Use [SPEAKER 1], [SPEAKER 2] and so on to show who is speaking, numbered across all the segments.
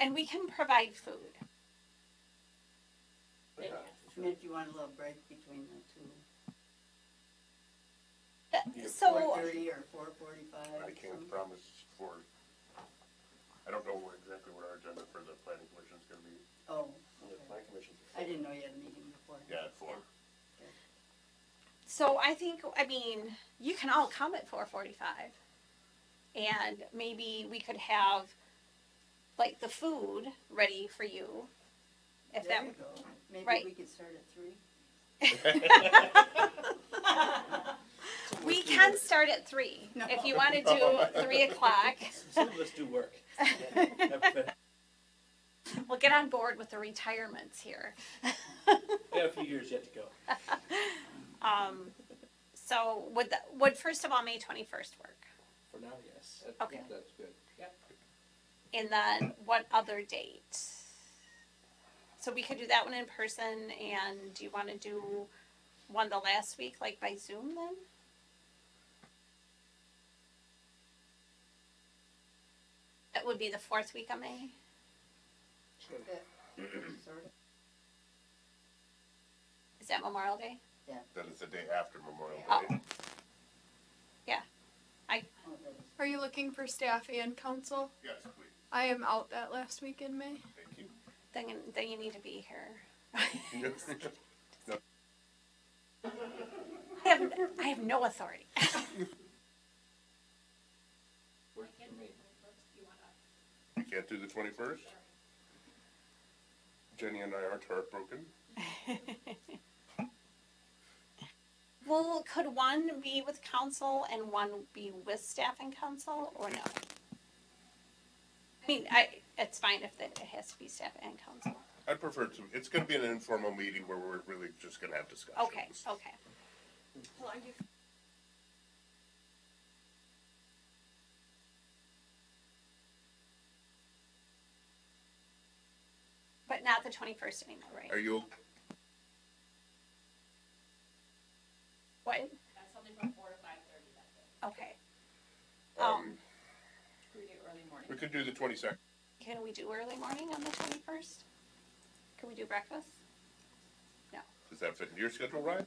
[SPEAKER 1] And we can provide food.
[SPEAKER 2] But, uh,
[SPEAKER 3] Meant you want a little break between the two,
[SPEAKER 1] That-
[SPEAKER 2] Yeah.
[SPEAKER 1] Uh,
[SPEAKER 3] four
[SPEAKER 1] So,
[SPEAKER 3] thirty or four forty-five?
[SPEAKER 2] I can't promise for, I don't know what- exactly what our agenda for the planning commission is gonna be.
[SPEAKER 3] Oh,
[SPEAKER 4] The
[SPEAKER 3] okay.
[SPEAKER 4] plan commission.
[SPEAKER 3] I didn't know you had a meeting before.
[SPEAKER 2] Yeah, at four.
[SPEAKER 1] so I think, I mean, you can all come at four forty-five. And maybe we could have, like, the food ready for you. If
[SPEAKER 3] There
[SPEAKER 1] that,
[SPEAKER 3] you go. Maybe
[SPEAKER 1] right.
[SPEAKER 3] we could start at three?
[SPEAKER 1] we can start at three,
[SPEAKER 3] No.
[SPEAKER 1] if you wanna do three o'clock.
[SPEAKER 4] Some of us do work.
[SPEAKER 1] We'll get on board with the retirements here.
[SPEAKER 4] We have a few years yet to go.
[SPEAKER 1] Um, so would, the- would first of all, May twenty-first work?
[SPEAKER 4] For now, yes.
[SPEAKER 1] Okay.
[SPEAKER 4] That's good.
[SPEAKER 1] And then what other date? So we could do that one in person and do you wanna do one the last week, like by Zoom then? That would be the fourth week of May.
[SPEAKER 3] Sort of.
[SPEAKER 1] Is that Memorial Day?
[SPEAKER 2] That is the day after Memorial
[SPEAKER 1] Oh.
[SPEAKER 2] Day.
[SPEAKER 3] Oh, that is-
[SPEAKER 5] Are you looking for staff and council?
[SPEAKER 2] Yes, please,
[SPEAKER 5] I am out that last week in May.
[SPEAKER 2] thank you.
[SPEAKER 1] Then, you- then you need to be here. I have, I have no authority.
[SPEAKER 4] Works for me.
[SPEAKER 2] You can't do the twenty-first? Jenny and I aren't heartbroken.
[SPEAKER 1] Well, could one be with council and one be with staff and council, or no? I mean, I, it's fine if it it has to be staff and council.
[SPEAKER 2] I prefer to, it's gonna be an informal meeting where we're really just gonna have discussions.
[SPEAKER 1] Okay, okay. But not the twenty-first anymore,
[SPEAKER 2] Are
[SPEAKER 1] right?
[SPEAKER 2] you,
[SPEAKER 1] What?
[SPEAKER 6] That's something from four to five thirty that day.
[SPEAKER 1] Okay.
[SPEAKER 2] um,
[SPEAKER 1] Um,
[SPEAKER 6] We do early morning.
[SPEAKER 2] we could do the twenty-second.
[SPEAKER 1] can we do early morning on the twenty-first? Can we do breakfast?
[SPEAKER 2] Does that fit into your schedule, Ryan?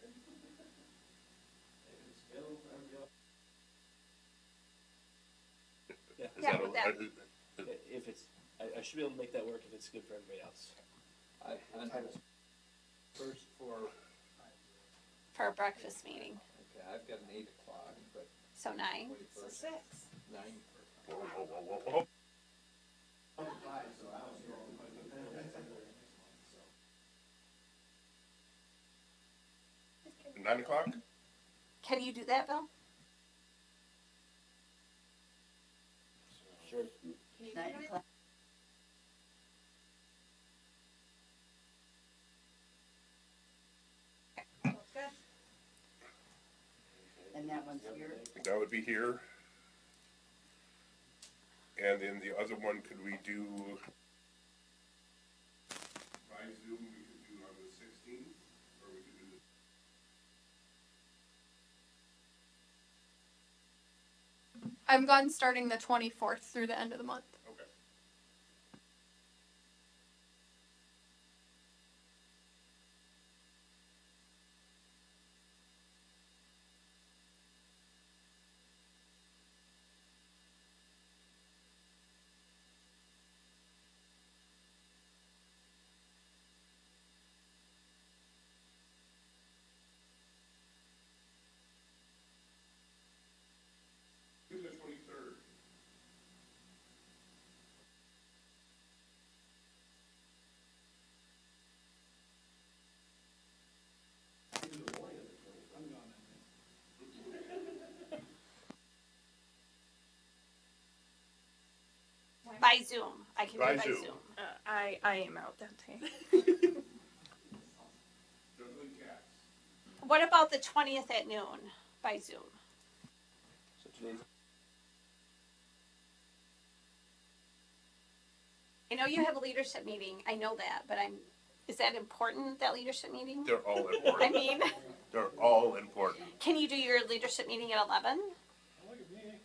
[SPEAKER 4] Yeah.
[SPEAKER 2] Is
[SPEAKER 1] Yeah,
[SPEAKER 2] that
[SPEAKER 1] with
[SPEAKER 2] a- uh,
[SPEAKER 1] that.
[SPEAKER 2] is-
[SPEAKER 4] I- If it's, I, I should be able to make that work if it's good for everybody else.
[SPEAKER 7] I, I first for,
[SPEAKER 1] For a breakfast meeting,
[SPEAKER 7] okay, I've got an eight o'clock, but
[SPEAKER 1] so nine?
[SPEAKER 7] twenty-first,
[SPEAKER 6] Six.
[SPEAKER 7] nine.
[SPEAKER 2] Whoa, whoa, whoa, whoa, whoa. Nine o'clock?
[SPEAKER 1] Can you do that, Bill?
[SPEAKER 4] Sure.
[SPEAKER 3] Nine o'clock. And that one's here,
[SPEAKER 2] That would be here. And then the other one, could we do? By Zoom, we could do on the sixteenth, or we could do the.
[SPEAKER 5] I'm gone starting the 24th through the end of the month.
[SPEAKER 2] Okay. Do the twenty-third.
[SPEAKER 1] By Zoom, I can do
[SPEAKER 2] By
[SPEAKER 1] by
[SPEAKER 2] Zoom.
[SPEAKER 1] Zoom.
[SPEAKER 8] Uh, I I am out that day.
[SPEAKER 2] Juggling cats.
[SPEAKER 1] What about the twentieth at noon by Zoom?
[SPEAKER 4] So today's
[SPEAKER 1] I know you have a leadership meeting, I know that, but I'm, is that important, that leadership meeting?
[SPEAKER 2] They're all
[SPEAKER 1] I
[SPEAKER 2] important.
[SPEAKER 1] mean,
[SPEAKER 2] They're all important.
[SPEAKER 1] can you do your leadership meeting at eleven?